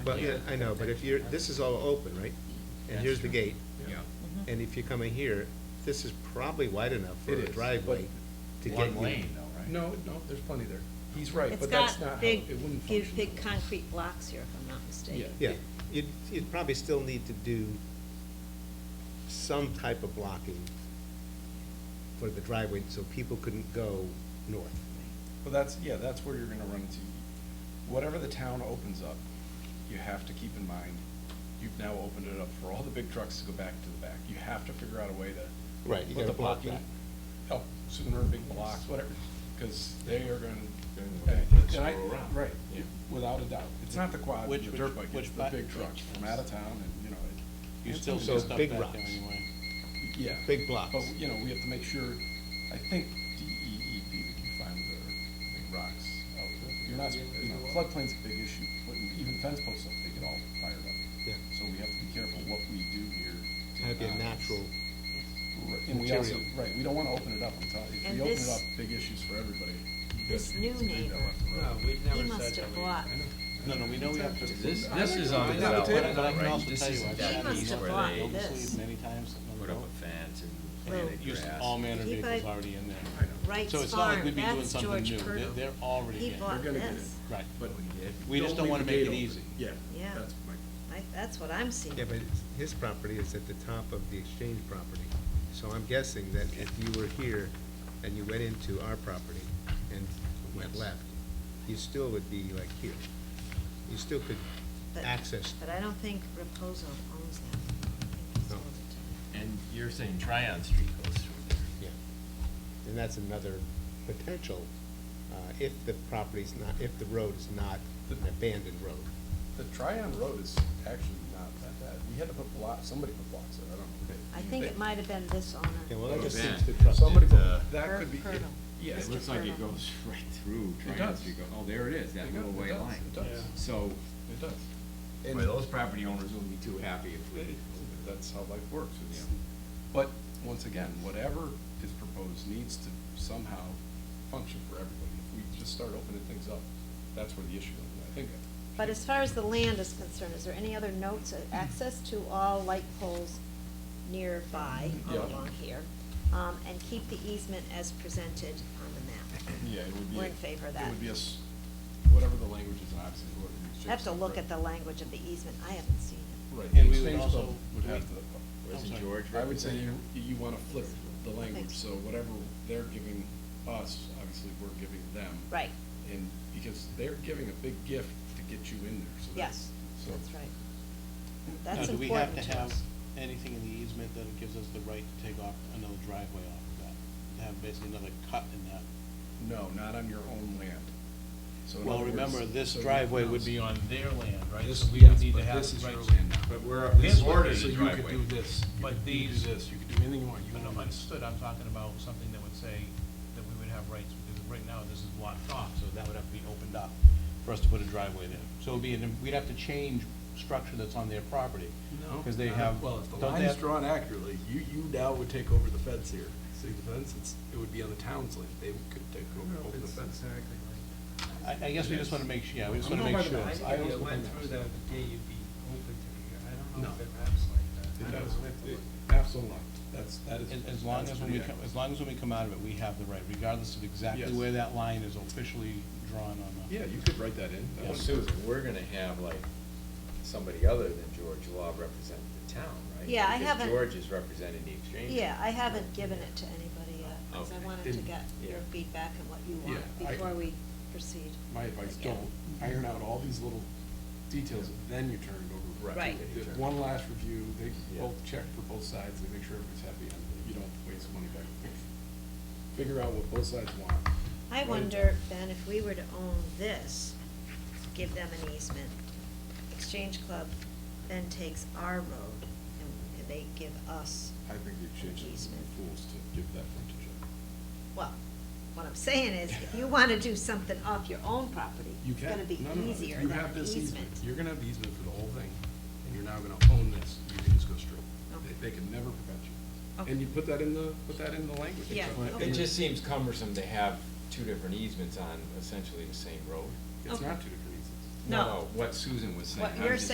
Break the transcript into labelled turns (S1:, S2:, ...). S1: Well, yeah, I know, but if you're, this is all open, right? And
S2: That's
S1: here's the
S2: true.
S1: gate,
S2: Yeah.
S1: and if you come in here, this is probably wide enough for
S2: It
S1: a
S2: is,
S1: driveway to get you.
S3: One lane though, right?
S2: No, no, there's plenty there. He's right,
S4: It's
S2: but that's
S4: got
S2: not how,
S4: big,
S2: it wouldn't function.
S4: huge, big
S2: that way.
S4: concrete blocks here, if I'm not mistaken.
S1: Yeah, you'd, you'd probably still need to do some type of blocking for the driveway, so people couldn't go north.
S2: Well, that's, yeah, that's where you're gonna run into, whatever the town opens up, you have to keep in mind, you've now opened it up for all the big trucks to go back to the back. You have to figure out a way to.
S1: Right, you
S2: put
S1: gotta
S2: the
S1: block
S2: blocking
S1: that.
S2: Up sooner, big blocks, whatever, because they are gonna. uh,
S3: Gonna go back,
S2: And I-
S3: screw around.
S2: Right, without a doubt. It's not the quad, the
S5: Which- which-
S2: dirt bike, it's
S5: which
S2: the
S5: bi-
S2: big trucks
S5: which-
S2: from out of town and, you know. it-
S5: You
S2: it's
S5: still
S2: gonna
S5: see
S2: be-
S1: So
S5: stuff back
S1: big
S5: there
S1: rocks.
S5: anyway.
S2: Yeah.
S1: Big blocks.
S2: But, you know, we have to make sure, I think DEEP, we can find the big rocks out there. You're not, you know, floodplain's a big issue, putting even fence posts up, they get all fired up.
S1: Yeah.
S2: So we have to be careful what we do here. to
S1: Have your
S2: not-
S1: natural,
S2: Right, And we also,
S1: material.
S2: right, we don't wanna open it up, I'm telling you, if
S4: And
S2: we open it
S4: this-
S2: up, big issues for everybody. You
S4: This
S2: gotta
S4: new
S2: leave that
S4: neighbor,
S2: left and right.
S4: he must have blocked,
S5: No, no, we know we have to.
S3: This, this is on the
S5: But I-
S3: south end,
S5: but I can
S3: right?
S5: also
S3: This
S5: tell you,
S3: is
S5: I've
S3: that
S4: He
S5: seen
S4: must
S3: piece
S4: have
S3: where
S4: blocked
S3: they
S4: this.
S5: Oakleaf many times. on the
S3: Put up
S5: road.
S3: a fence and
S4: Well,
S3: planted
S5: Used
S3: grass.
S5: all manner of
S4: He
S5: vehicles
S4: bought-
S5: already in there.
S2: I know.
S4: Wright's
S5: So it's not like
S4: Farm,
S5: we'd be doing
S4: that's
S5: something
S4: George
S5: new. They're,
S4: Purtle.
S5: they're already
S4: He
S5: in.
S4: bought
S2: gonna get
S4: this,
S5: Right.
S2: But
S5: We just don't
S2: leave
S5: wanna
S2: the
S5: make
S2: gate
S5: it
S2: open.
S5: easy.
S2: Yeah.
S4: Yeah.
S2: That's my.
S4: I, that's what I'm seeing.
S1: yeah, but it's- his property is at the top of the exchange property. So I'm guessing that if you were here and you went into our property and went left, you still would be like here. You still could
S4: But-
S1: access,
S4: But I don't think Reposo owns that. I think he
S1: No.
S4: sold it to-
S3: And you're saying Tryon Street goes through there.
S1: yeah. And that's another potential, uh, if the property's not, if the road is not an abandoned road.
S2: The Tryon Road is actually not that bad. We had to put blocks, somebody put blocks there, I don't know. who
S4: I
S2: did.
S4: think it might have been this owner.
S1: Yeah, well, that just
S3: Yeah.
S1: seems to trust.
S2: Somebody put,
S3: Uh,
S2: that
S4: Pur-
S2: could be, it-
S4: Purdle.
S2: yeah,
S3: It
S4: Mr.
S3: looks like it
S4: Furlong.
S3: goes right through Tryon
S2: does.
S3: Street. Go- Oh, there it is, that
S2: It
S3: little
S2: does,
S3: white
S2: it does,
S3: line.
S2: it does.
S3: So,
S2: it does.
S3: boy,
S2: And
S3: those property owners will be too happy if we.
S2: that's how life works. It's- But, once again, whatever is proposed needs to somehow function for everybody. If we just start opening things up, that's where the issue is, I think.
S4: But as far as the land is concerned, is there any other notes, Uh, access to all light poles nearby, all
S2: Yeah.
S4: along here? Um, and keep the easement as presented on the map.
S2: Yeah, it would be.
S4: We're in favor of that.
S2: It would be a, s- whatever the language is, and obviously, whoever.
S4: I have to look at the language of the easement, I haven't seen it.
S2: Right,
S5: And
S2: the
S5: we would
S2: exchange
S5: also-
S2: club would have to.
S3: Where's
S5: I'm
S3: the
S5: sorry.
S3: George?
S2: I would say you,
S3: representative?
S2: you wanna flip the language,
S4: Thanks.
S2: so whatever they're giving us, obviously, we're giving them.
S4: Right,
S2: And, because they're giving a big gift to get you in there, so that's.
S4: yes,
S2: so-
S4: that's right.
S5: Now,
S4: That's
S5: do we have
S4: important
S5: to
S4: to
S5: have
S4: us.
S5: anything in the easement that gives us the right to take off another driveway off of that? To have basically another cut in that?
S2: No, not on your own land. So in
S5: Well,
S2: other words-
S5: remember, this
S2: so you-
S5: driveway would be on their land, right? So we
S2: yes,
S5: would need
S2: but
S5: to have
S2: this
S5: the
S2: is
S5: right
S2: your
S5: to-
S2: land now.
S3: But we're, this is already
S5: so
S3: the
S5: you
S3: driveway.
S5: could do this,
S2: You
S5: but
S2: could do
S5: these.
S2: this, you could do anything you want. You
S5: But
S2: can-
S5: I'm understood, I'm talking about something that would say that we would have rights, because right now this is blocked off, so that would have to be opened up for us to put a driveway there. So it'd be, an- we'd have to change structure that's on their property. Because they
S2: uh,
S5: have.
S6: Well, if the
S5: don't they
S6: line's
S5: have-
S6: drawn accurately, you, you now would take over the fence here. See the fence, it's, it would be on the town's land, they could take over, open the fence.
S5: I, I guess we just wanna make, su- yeah, we just
S2: I'm
S5: wanna
S2: not
S5: make
S2: by the
S5: sure.
S2: back.
S7: I
S2: I
S7: think if
S2: also
S7: it went
S2: think
S7: through the
S2: that's-
S7: gate, you'd be open to it. I don't know if
S6: No.
S7: it wraps like that.
S6: It
S7: I don't
S6: does.
S7: know if it would.
S2: Absolutely, that's, that is.
S5: As, as long
S2: that's
S5: as when we,
S2: pretty
S5: come-
S2: accurate.
S5: as long as when we come out of it, we have the right, regardless of
S2: Yes.
S5: exactly where that line is officially drawn on the.
S2: Yeah, you could write that in. That
S3: Well,
S2: would-
S3: Susan, we're gonna have like somebody other than George Law represent the town, right?
S4: Yeah, I
S3: Because
S4: haven't-
S3: George is representing the exchange.
S4: Yeah, I haven't given it to anybody yet, because
S3: Okay.
S4: I wanted to
S3: Didn't-
S4: get your
S3: yeah.
S4: feedback on what you want
S2: Yeah, I-
S4: before we proceed.
S2: My advice,
S4: again.
S2: don't iron out all these little details, then you turn it over.
S4: Right.
S2: The One last review, they
S3: Yeah.
S2: both check for both sides, they make sure everybody's happy, and you don't waste money back and forth. Figure out what both sides want.
S4: I
S2: Right.
S4: wonder, Ben, if we were to own this, give them an easement, Exchange Club then takes our road and- and they give us,
S2: I think the exchange is
S4: Easement.
S2: fools to give that frontage up.
S4: well, what I'm saying is, if you want to do something off your own property,
S2: You
S4: it's
S2: can.
S4: going to be
S2: No, no, no.
S4: easier
S2: You
S4: than
S2: have
S4: an
S2: this
S4: easement.
S2: You're gonna have the easement for the whole thing, and you're now gonna own this, you can just go straight.
S4: Okay.
S2: They, they can never prevent you.
S4: Okay.
S2: And you put that in the, put that in the language.
S4: Yeah, okay.
S3: It just seems cumbersome to have two different easements on essentially the same road.
S2: It's
S4: Okay.
S2: not two different easements.
S3: No.
S4: What Susan was saying.
S3: What
S4: I'm
S3: you're
S4: just